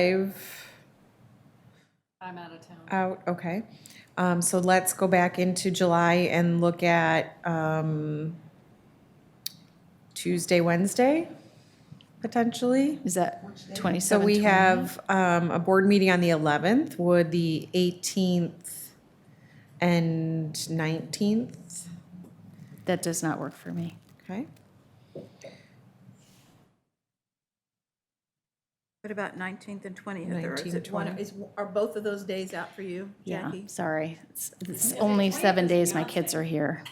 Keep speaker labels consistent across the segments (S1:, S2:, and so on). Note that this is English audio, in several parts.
S1: five
S2: I'm out of town.
S1: out, okay. Um, so let's go back into July and look at, um, Tuesday, Wednesday, potentially.
S3: Is that 27?
S1: So we have um, a board meeting on the 11th. Would the 18th and 19th,
S3: That does not work for me.
S1: okay?
S4: What about 19th and 20th? Or is
S1: 19th,
S4: it one,
S1: 20th.
S4: is, are both of those days out for you,
S3: Yeah,
S4: Jackie?
S3: sorry. It's- It's only seven days my kids are here.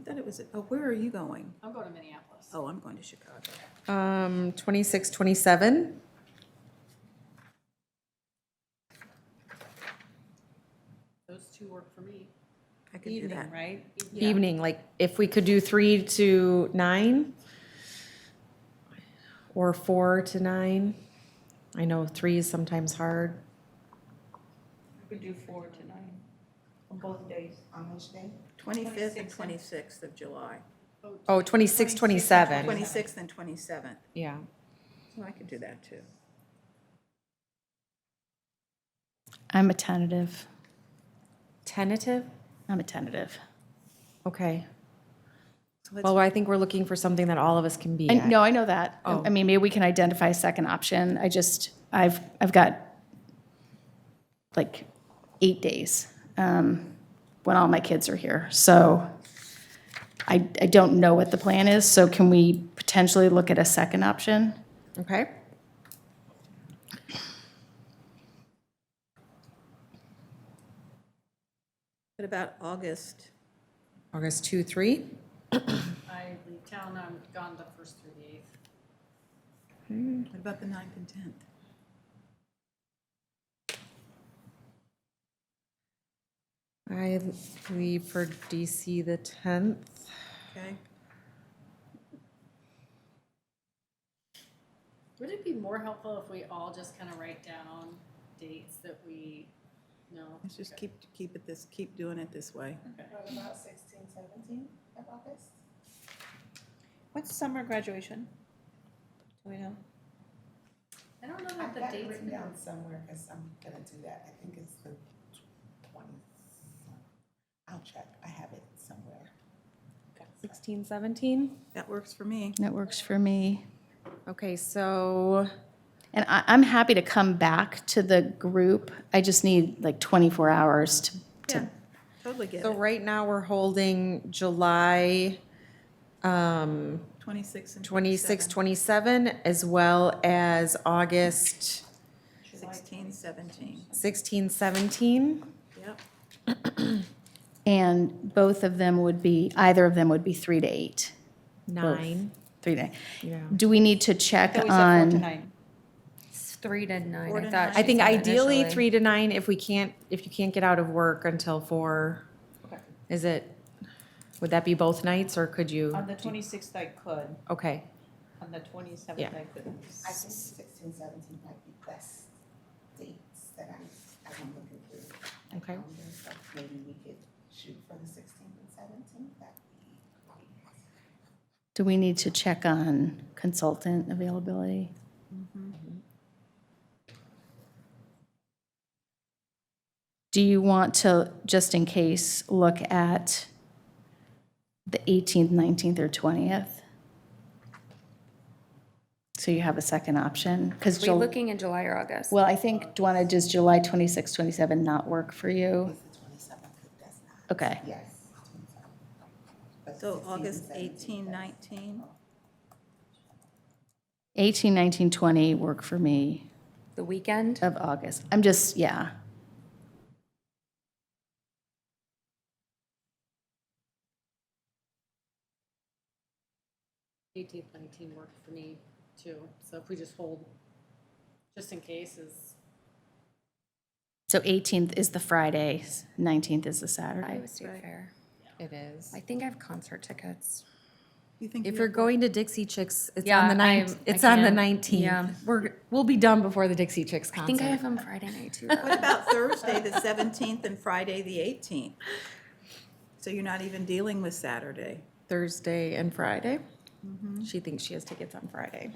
S4: I thought it was, oh, where are you going?
S2: I'm going to Minneapolis.
S4: Oh, I'm going to Chicago.
S1: Um, 26, 27?
S2: Those two work for me.
S4: I could do that.
S2: right? Yeah,
S1: Evening, like if we could do 3 to 9? Or 4 to 9? I know 3 is sometimes hard.
S5: We do four tonight. On both days. On which day?
S4: 25th and 26th of July,
S1: Oh, 26, 27,
S4: 26th and 27th.
S1: yeah.
S4: Well, I could do that too.
S3: I'm a tentative.
S1: Tentative?
S3: I'm a tentative.
S1: Okay.
S4: So let's-
S1: Well, I think we're looking for something that all of us can be
S3: I,
S1: at.
S3: no, I know that. I-
S1: Oh.
S3: I mean, maybe we can identify a second option. I just, I've, I've got like eight days um, when all my kids are here. So I, I don't know what the plan is. So can we potentially look at a second option?
S1: Okay.
S4: What about August?
S1: August 2, 3?
S2: I leave town, I'm gone the first through the eighth.
S4: What about the 9th and 10th?
S1: I leave for DC the 10th.
S4: Okay?
S2: Would it be more helpful if we all just kind of write down dates that we know?
S4: Let's just keep, keep it this, keep doing it this way.
S5: About sixteen, seventeen of August. What's summer graduation? Do we know?
S2: I don't know
S6: I've
S2: what the
S6: got it
S2: dates.
S6: written down somewhere, because I'm gonna do that, I think it's the twenty. I'll check, I have it somewhere.
S1: 16, 17?
S4: That works for me.
S3: That works for me.
S1: Okay, so,
S3: And I, I'm happy to come back to the group. I just need like 24 hours to,
S4: Yeah, totally get
S1: so
S4: it.
S1: right now we're holding July
S4: 26th
S1: 26,
S4: and 27th.
S1: 27, as well as August
S4: 16, 17.
S1: 16, 17.
S4: Yep.
S3: and both of them would be, either of them would be three to eight,
S1: Nine.
S3: three to.
S1: Yeah.
S3: Do we need to check
S5: That we said four to
S3: on?
S5: nine.
S7: It's three to nine.
S4: Four to
S7: I thought
S4: nine.
S1: I think
S7: she said
S1: ideally
S7: initially.
S1: three to nine, if we can't, if you can't get out of work until four.
S5: Okay.
S1: Is it, would that be both nights, or could you?
S7: Um,
S5: On the twenty-sixth I could,
S1: Okay,
S5: on the twenty-seventh I couldn't.
S6: I think sixteen, seventeen might be best dates that I, I'm looking through. my
S1: Okay.
S6: calendar, so Maybe we could shoot for the sixteenth and seventeenth, that'd be great.
S3: Do we need to check on consultant availability? Do you want to, just in case, look at the 18th, 19th, or 20th? So you have a second option? Because,
S7: We're looking in July or August.
S3: well, I think, Dwana, does July 26, 27 not work for you?
S6: It's the twenty-seventh, it does not,
S3: Okay,
S6: yes. 27th. But
S4: So
S6: 16th and
S4: August
S6: 17th,
S4: 18,
S6: that's-
S4: 19?
S3: 18, 19, 20 work for me
S7: The weekend,
S3: of August. I'm just, yeah.
S2: Eighteenth, nineteenth work for me too. So if we just hold, just in case is,
S3: So 18th is the Friday, 19th is the
S7: I
S3: Saturday.
S7: would do fair.
S1: it is.
S7: I think I have concert tickets.
S4: You think
S1: If
S4: you're
S1: you're going to Dixie Chicks, it's
S7: Yeah,
S1: on the ninth.
S7: I- I
S1: It's on the
S7: can't.
S1: nineteenth.
S7: Yeah.
S1: We're we'll be done before the Dixie Chicks concert.
S7: I think I have them Friday night too.
S4: What about Thursday, the 17th, and Friday, the 18th? So you're not even dealing with Saturday.
S1: Thursday and Friday. She thinks she has tickets on Friday.